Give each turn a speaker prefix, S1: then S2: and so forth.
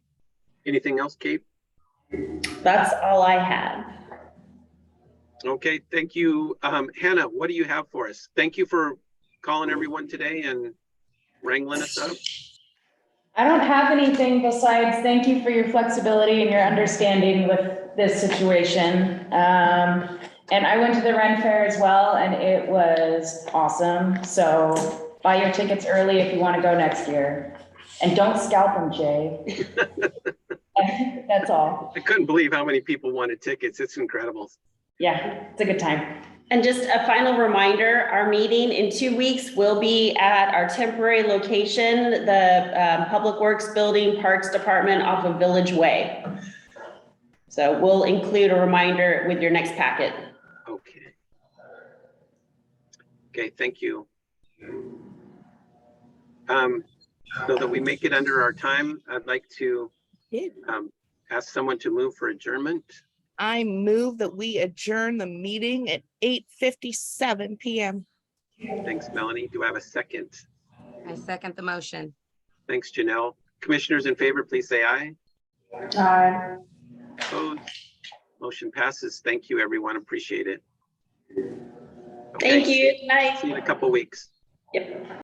S1: Anything else, Kate?
S2: That's all I have.
S1: Okay, thank you. Um, Hannah, what do you have for us? Thank you for calling everyone today and wrangling us up.
S3: I don't have anything besides thank you for your flexibility and your understanding with this situation. Um, and I went to the Ren Fair as well and it was awesome. So buy your tickets early if you want to go next year. And don't scalp them, Jay. That's all.
S1: I couldn't believe how many people wanted tickets. It's incredible.
S3: Yeah, it's a good time.
S2: And just a final reminder, our meeting in two weeks will be at our temporary location, the um, Public Works Building Parks Department off of Village Way. So we'll include a reminder with your next packet.
S1: Okay. Okay, thank you. Um, so that we make it under our time, I'd like to
S4: Yeah.
S1: um, ask someone to move for adjournment.
S4: I move that we adjourn the meeting at eight fifty-seven PM.
S1: Thanks, Melanie. Do I have a second?
S5: I second the motion.
S1: Thanks, Janelle. Commissioners in favor, please say aye.
S3: Aye.
S1: Opposed? Motion passes. Thank you, everyone. Appreciate it.
S2: Thank
S1: Okay,
S2: you. Good night.
S1: See you in a couple weeks.